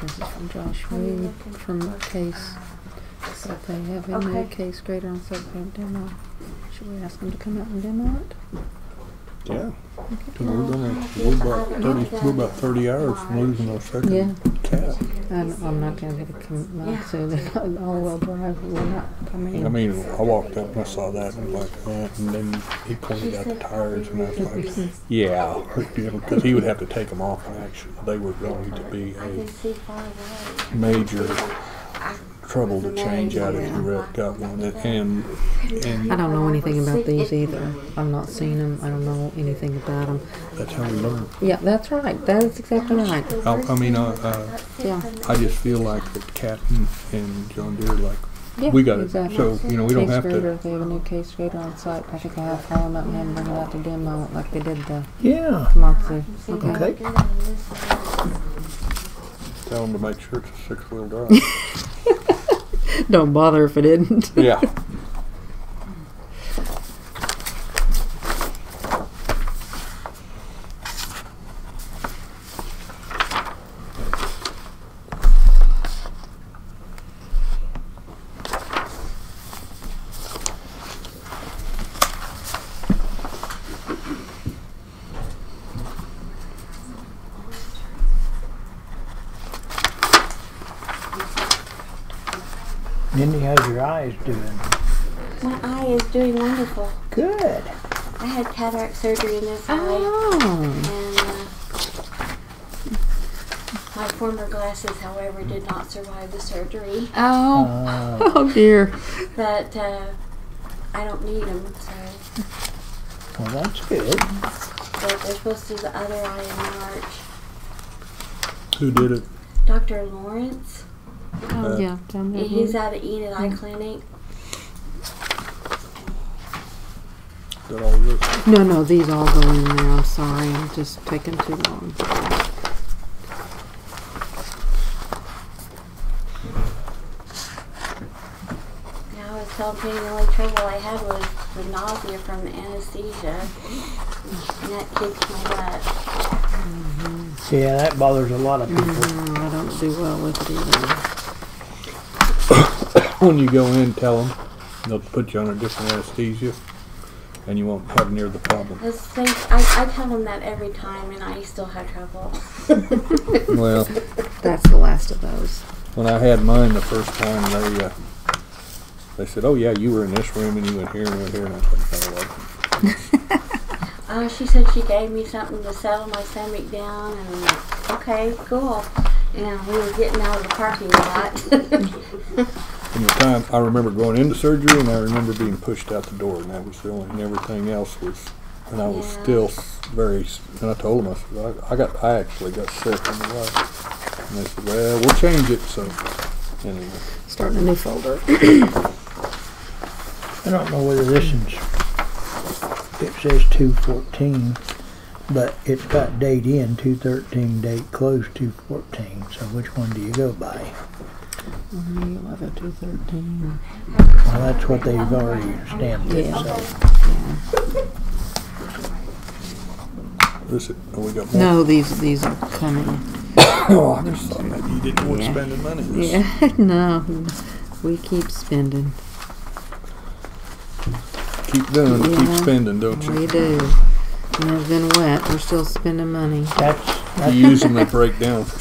This is from Josh Are you Reed looking from for, case, uh, so- if they have any Okay. case greater than thirteen demo. Should we ask them to come out and demo it? Yeah. Okay. We're gonna, we're about thirty, we're about thirty hours from losing our Yeah, second cat. I'm, I'm not gonna get a com- like I said, it's not an all-wheel drive, we're not, I I mean, mean, I walked up and I saw that and was like that, and then he pointed out the tires, and I was like, yeah, because he would have to take them off. And actually, they were going to be I can a see far away. major trouble to change out if you really got one. And I and don't know anything about these either. I've not seen them, I don't know anything about them. that's how we learn. Yeah, that's right, that is exactly right. I, I mean, uh, uh, Yeah. I just feel like that Cat and, and John Deere, like Yeah, we got it, exactly. so you know we don't Case have grader, to. if they have a new case grader on site, I think I have to them up and have them bring it out to demo it like they did the Yeah. Matsu. Okay. Okay. Tell them to make sure it's a six-wheel drive. Don't bother if it isn't. yeah. Mindy, how's your eyes doing? My eye is doing wonderful. Good. I had cataract surgery in this eye, Oh. and uh, my former glasses, however, did not survive the surgery. Oh. Uh, Oh dear. But uh, I don't need them, so well, that's good. but they're supposed to do the other eye in March. Who did it? Dr. Lawrence, Uh, Oh, yeah. Down there. he's at the Enid Eye Clinic. Did all this? No, no, these all go in there. I'm sorry. I'm just taking too long. Now I was telling Penny the only trouble I had was the nausea from the anesthesia, and that kicked my butt. Yeah, that bothers a lot of people. Mm, I don't do well with it either. when you go in, tell them they'll put you on a different anesthesia, and you won't have near the problem. This thing, I, I tell them that every time, and I still have trouble. well, That's the last of those. when I had mine the first time, they uh, they said, "Oh yeah, you were in this room, and you went here, and went here," and I was like, "Oh, well." Uh, she said she gave me something to settle my stomach down, and I'm like, okay, cool. And we were getting out of the parking lot. From the time I remember going into surgery, and I remember being pushed out the door, and that was the only. And everything else was, and I was Yeah. still s- very. s- And I told them, I said, "I, I got, I actually got sick on the way," and they said, "Well, we'll change it." So, anyway, Starting a new folder. I don't know whether this one's, it says two fourteen, but it's got date in, two thirteen, date close, two fourteen, so which one do you go by? Eleven to thirteen. Well, that's what they've already stamped it, Yeah. so. this is, oh, we got more. No, these these are coming. Oh, I just thought maybe you didn't want Yeah. to spend the money. Yeah. no, we keep spending. Keep doing it, Yeah. keep spending, don't you? We do. And it's been wet. We're still spending money. That's, You that's, use them, they break down for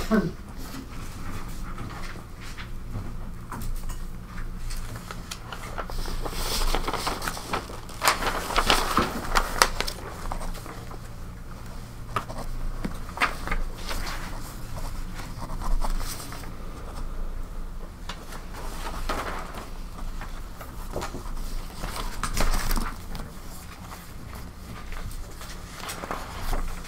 some reason.